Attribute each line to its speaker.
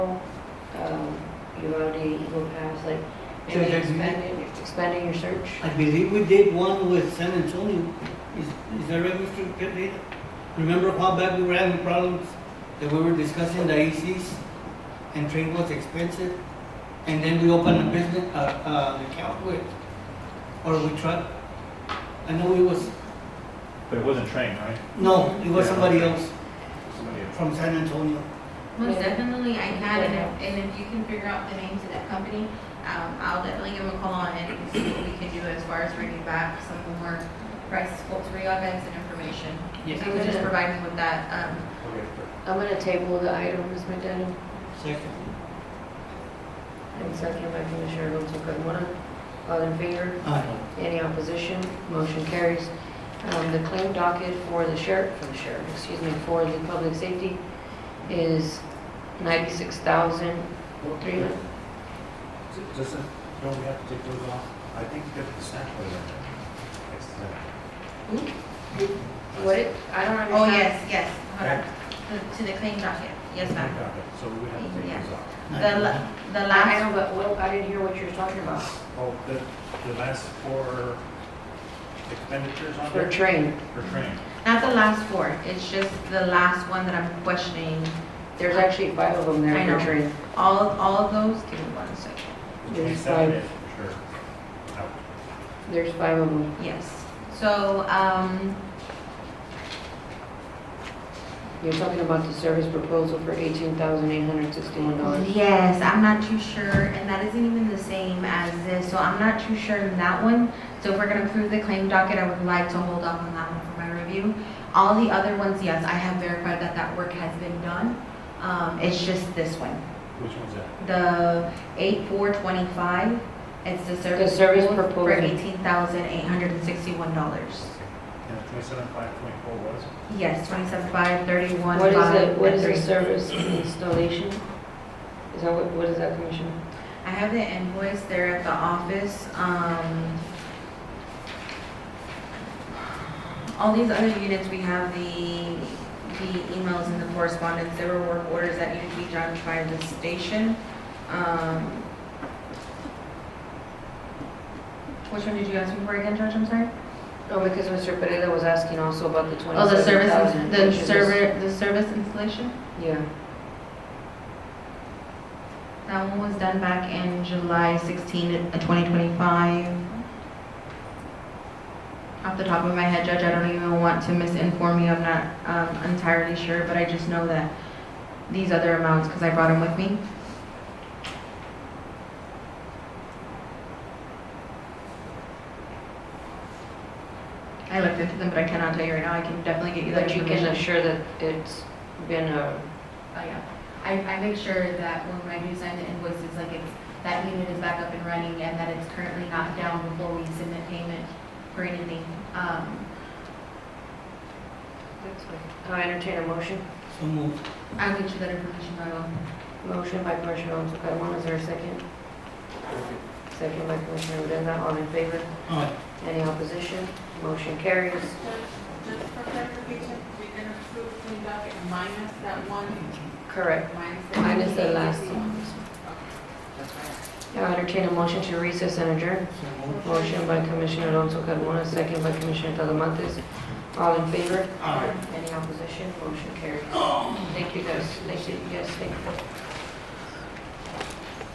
Speaker 1: um, ULD, Eagle Pass, like
Speaker 2: So
Speaker 1: maybe
Speaker 2: there's no-
Speaker 1: expanding, expanding your search?
Speaker 2: I believe we did one with San Antonio. Is, is that registered pet data? Remember a while back we were having problems that we were discussing the ECs and train was expensive? And then we opened a business, uh, uh, an account with, or we tried. I know it was,
Speaker 3: But it wasn't trained, right?
Speaker 2: no, it was
Speaker 3: Yeah.
Speaker 2: somebody else
Speaker 3: Somebody else.
Speaker 2: from San Antonio.
Speaker 4: Most
Speaker 1: Yeah.
Speaker 4: definitely, I can, and if,
Speaker 1: Yeah.
Speaker 4: and if you can figure out the names of that company, um, I'll definitely give them a call and see what we can do as far as bringing back some more price quotes, events and information. If you could just provide me with that, um,
Speaker 1: I'm gonna table the item, Ms. McDaniel,
Speaker 2: Second.
Speaker 1: and second by Commissioner Alonso Carmona. All in favor?
Speaker 2: Aye.
Speaker 1: Any opposition? Motion carries. Um, The claim docket for the sheriff, for the sheriff, excuse me, for the public safety is 96,003.
Speaker 5: Just, don't we have to take those off? I think you got the snap one in there. That's the-
Speaker 1: What it, I don't understand.
Speaker 4: oh, yes, yes, hold on.
Speaker 5: Right.
Speaker 4: To- to the claim docket, Uh, yes, ma'am.
Speaker 5: Okay, So we would have to take those off.
Speaker 4: The, la- the
Speaker 1: I
Speaker 4: last,
Speaker 1: know, but what, I didn't hear what you were talking about.
Speaker 5: Oh, the, the last four expenditures on
Speaker 1: For
Speaker 5: there
Speaker 1: train,
Speaker 5: for train.
Speaker 4: not the last four, it's just the last one that I'm questioning.
Speaker 1: there's actually five of them
Speaker 4: I
Speaker 1: there
Speaker 4: know.
Speaker 1: for train.
Speaker 4: All, all of those, give me one second,
Speaker 5: The
Speaker 1: There's
Speaker 5: 27
Speaker 1: five.
Speaker 5: is for sure. Out.
Speaker 1: There's five of them.
Speaker 4: yes. So, um,
Speaker 1: You're talking about the service proposal for $18,861.
Speaker 4: Yes, I'm not too sure, and that isn't even the same as this, so I'm not too sure in that one. So if we're gonna approve the claim docket, I would like to hold off on that one for my review. All the other ones, yes, I have verified that that work has been done. Um, it's just this one,
Speaker 5: Which one's that?
Speaker 4: the eight four twenty-five, it's the
Speaker 1: The
Speaker 4: service.
Speaker 1: service
Speaker 4: proposal For
Speaker 1: proposal.
Speaker 4: eighteen thousand eight hundred and sixty-one dollars.
Speaker 5: And the twenty-seven five point four was?
Speaker 4: Yes, twenty-seven five, thirty-one
Speaker 1: What is
Speaker 4: five,
Speaker 1: it, what
Speaker 4: and
Speaker 1: is the
Speaker 4: three.
Speaker 1: service installation? Is that, what? what is that, Commissioner?
Speaker 4: I have the invoice there at the office. Um, all these other units, we have the, the emails and the correspondence. There were work orders that needed to be done by the station. Um, which one did you ask me for again, Judge? I'm sorry?
Speaker 1: No, Oh, because Mr. Pereira was asking also about the
Speaker 4: Oh, the
Speaker 1: twenty-seven
Speaker 4: service,
Speaker 1: thousand.
Speaker 4: the server, the service installation?
Speaker 1: Yeah,
Speaker 4: That one was done back in July 16, uh, 2025. Off the top of my head, Judge, I don't even want to misinform you, I'm not um, entirely sure, but I just know that these other amounts, because I brought them with me. I looked into them, but I cannot tell you right now, I can definitely get you that
Speaker 1: but you
Speaker 4: information.
Speaker 1: can assure that it's been a,
Speaker 4: Oh, yeah. I, I make sure that when I do sign the invoices, like it's, that unit is back up and running and that it's currently not down before we submit payment for anything. Um,
Speaker 1: I entertain a motion.
Speaker 2: So moved.
Speaker 4: I'll get you that information, I will.
Speaker 1: Motion by Commissioner Alonso Carmona, is there a second? Second by Commissioner Odena, all in favor?
Speaker 2: Aye.
Speaker 1: Any opposition? Motion carries.
Speaker 6: Just for clarification, we're gonna approve clean docket minus that one,
Speaker 1: Correct.
Speaker 6: minus the.
Speaker 1: Minus the last
Speaker 6: 88.
Speaker 1: one. Now entertain a motion to recess and adjourn.
Speaker 2: So moved.
Speaker 1: Motion by Commissioner Alonso Carmona, second by Commissioner Talamantes. All in favor?
Speaker 2: Aye.
Speaker 1: Any opposition? Motion carries. Thank you guys. Thank you guys. Thank you.